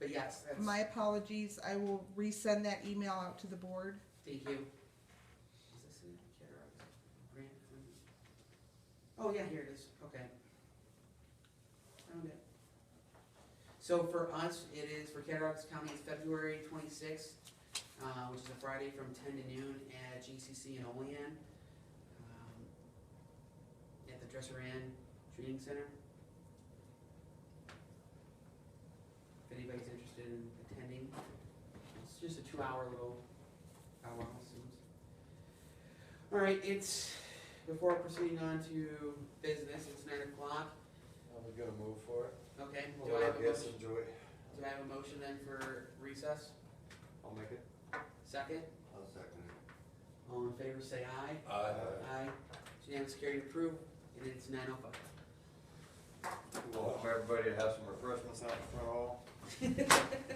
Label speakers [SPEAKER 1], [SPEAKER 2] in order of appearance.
[SPEAKER 1] yes, that's,
[SPEAKER 2] My apologies, I will resend that email out to the board.
[SPEAKER 1] thank you. Is this in the care of grant funding? Oh, yeah, here it is, okay. Found it. So for us, it is, for Catarocts County, it's February twenty-sixth, uh, which is a Friday from ten to noon at GCC in Olean. um, At the Dresser Inn Training Center. If anybody's interested in attending, it's just a two-hour little powwow, seems. All right, it's, before proceeding on to business, it's nine o'clock,
[SPEAKER 3] I'm gonna move for it.
[SPEAKER 1] okay, do I
[SPEAKER 3] Well,
[SPEAKER 1] have a
[SPEAKER 3] I guess
[SPEAKER 1] motion?
[SPEAKER 3] enjoy.
[SPEAKER 1] Do I have a motion then for recess?
[SPEAKER 3] I'll make it.
[SPEAKER 1] Second,
[SPEAKER 3] I'll second it.
[SPEAKER 1] all in favor say aye.
[SPEAKER 3] Aye.
[SPEAKER 1] Aye, It's unanimous carried approved, and it's nine oh five.
[SPEAKER 3] Welcome everybody to have some refreshments out in front hall.